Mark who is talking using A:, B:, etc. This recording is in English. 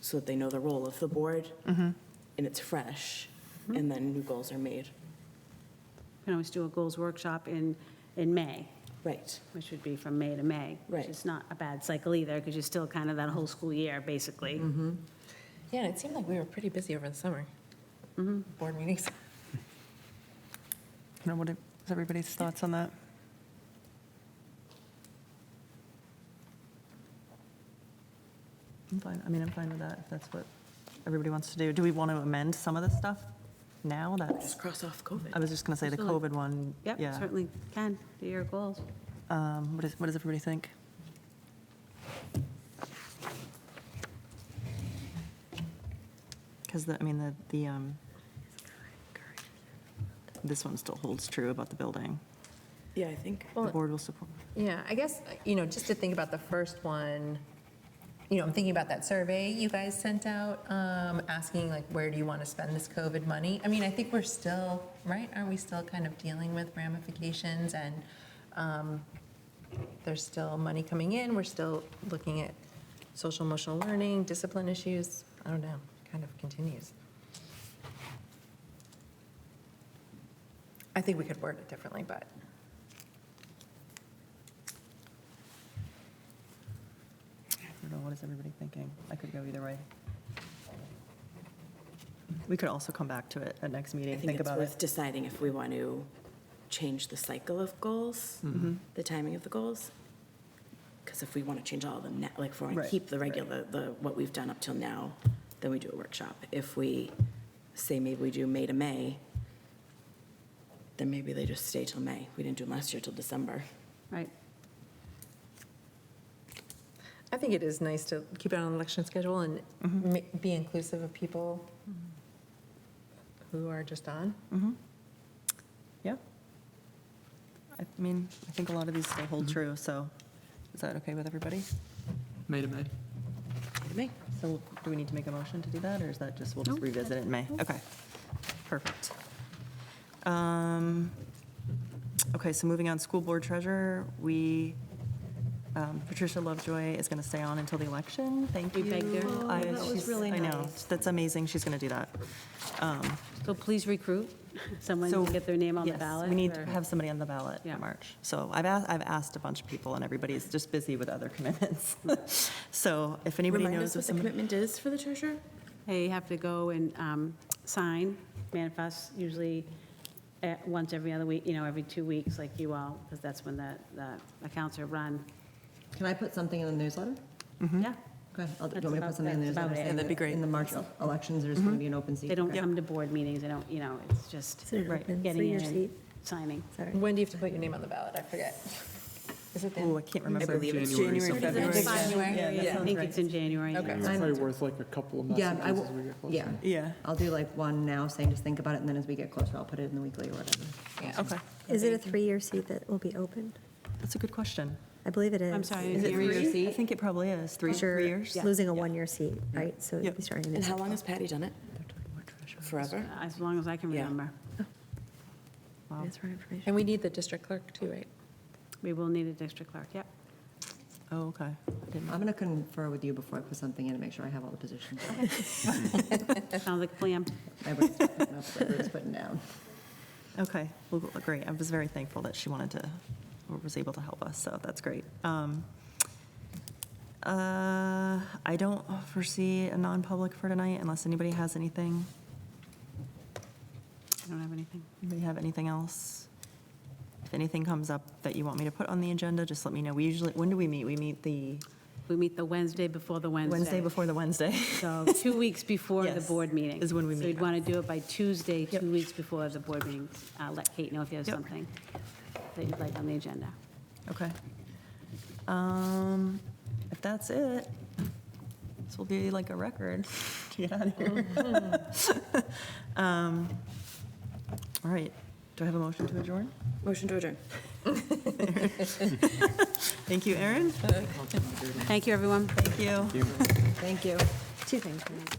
A: so that they know the role of the board and it's fresh, and then new goals are made.
B: Can always do a goals workshop in, in May,
A: Right,
B: which would be from May to May.
A: Right.
B: Which is not a bad cycle either, because you're still kind of that whole school year, basically.
C: Mm-hmm.
D: Yeah, and it seemed like we were pretty busy over the summer. Board meetings.
C: You know, what are- what's everybody's thoughts on that? I'm fine, I mean, I'm fine with that, if that's what everybody wants to do. Do we want to amend some of this stuff now? That's,
A: just cross off
C: I
A: COVID.
C: was just going to say the COVID one.
B: Yep,
C: yeah.
B: certainly can, do your goals.
C: Um, What is, what does everybody think? Because the, I mean, the, the, um, this one still holds true about the building.
A: Yeah, I think.
C: The
D: Well-
C: board will support.
D: Yeah, I guess, you know, just to think about the first one, you know, I'm thinking about that survey you guys sent out, um, asking like, where do you want to spend this COVID money? I mean, I think we're still, right, aren't we still kind of dealing with ramifications and um, there's still money coming in, we're still looking at social emotional learning, discipline issues, I don't know, kind of continues. I think we could word it differently, but.
C: I don't know, what is everybody thinking? I could go either way. We could also come back to it at next meeting,
A: I think
C: think
A: it's
C: about
A: worth
C: it.
A: deciding if we want to change the cycle of goals, the timing of the goals. Because if we want to change all of them now, like if we want to
C: Right,
A: keep the regular, the, what we've done up till now, then we do a workshop. If we say maybe we do May to May, then maybe they just stay till May. We didn't do them last year till December.
B: Right,
D: I think it is nice to keep it on an election schedule and ma- be inclusive of people who are just on.
C: Yeah. I mean, I think a lot of these still hold true, so is that okay with everybody?
E: May to May.
A: May to May.
C: So do we need to make a motion to do that, or is that just, we'll just
B: No.
C: revisit it in May? Okay, perfect. Um, Okay, so moving on, school board treasurer, we, um, Patricia Lovejoy is going to stay on until the election. Thank you.
B: We begged her. Oh,
C: I-
B: that was
C: she's-
B: really
C: I know,
B: nice.
C: that's amazing, she's going to do that. Um,
B: so please recruit someone
C: So,
B: to get their name on the
C: yes,
B: ballot.
C: We need to
B: or-
C: have somebody on the ballot
B: Yeah.
C: in March. So I've asked, I've asked a bunch of people, and everybody's just busy with other commitments. So if anybody
A: Remind us
C: knows of
A: what the
C: somebody.
A: commitment is for the treasurer?
B: They have to go and um, sign manifest, usually eh, once every other week, you know, every two weeks, like you all, because that's when the, the accounts are run.
F: Can I put something in the newsletter?
C: Mm-hmm.
B: Yeah,
F: Okay, I'll- do you
B: That's
F: want me to
B: about-
F: put something in the
B: that's about
F: newsletter?
B: it.
F: saying
B: Yeah,
C: that'd be great. Mm-hmm.
F: In the March elections, there's going to be an open seat.
B: they don't
F: Okay.
B: come to board meetings, they don't, you know, it's just
C: open
B: getting in and signing.
D: When do you have to put your name on the ballot? I forget. Is it
C: Oh,
D: then?
C: I can't remember.
A: believe it's
C: January,
E: something.
C: February.
D: January?
C: Yeah, that
B: I
C: sounds
B: think
C: right.
B: it's in January.
D: Okay.
E: It's probably worth like a couple of
F: Yeah, I
E: messages
F: will,
E: as we get closer.
F: yeah.
C: Yeah,
F: I'll do like one now saying just think about it, and then as we get closer, I'll put it in the weekly or whatever.
D: Yeah.
C: okay.
G: Is it a three-year seat that will be opened?
C: That's a good question.
G: I believe it is.
B: I'm sorry.
C: Is it
B: Three-year
C: three-year seat? I think it probably is, three,
G: Because you're
C: three years.
G: Losing a one-year seat, right? So
C: Yep.
G: you'd be starting in
A: And how long has Patty done it? Forever?
B: As long as I can
A: Yeah.
B: remember.
D: And we need the district clerk too, right?
B: We will need a district clerk, yep.
C: Oh, okay. I didn't-
F: I'm going to confer with you before I put something in and make sure I have all the positions.
B: Sounds like a plan.
F: I would start putting up what Ruth's putting down.
C: Okay, well, great. I was very thankful that she wanted to, or was able to help us, so that's great. Um, uh, I don't foresee a non-public for tonight unless anybody has anything.
B: I don't have anything.
C: Anybody have anything else? If anything comes up that you want me to put on the agenda, just let me know. We usually, when do we meet? We meet the
B: We meet the Wednesday before the Wednesday.
C: Wednesday before the Wednesday.
B: So two weeks before the
C: Yes,
B: board meeting.
C: is when we
B: So
C: meet.
B: you'd want to do it by Tuesday,
C: Yep.
B: two weeks before the board meeting. Uh, Let Kate know if you have
C: Yep.
B: something that you'd like on the agenda.
C: Okay. Um, if that's it, this will be like a record to get out of here. Um, All right, do I have a motion to adjourn?
A: Motion to adjourn.
C: Thank you, Erin.
B: Thank you, everyone.
C: Thank you.
G: Two things.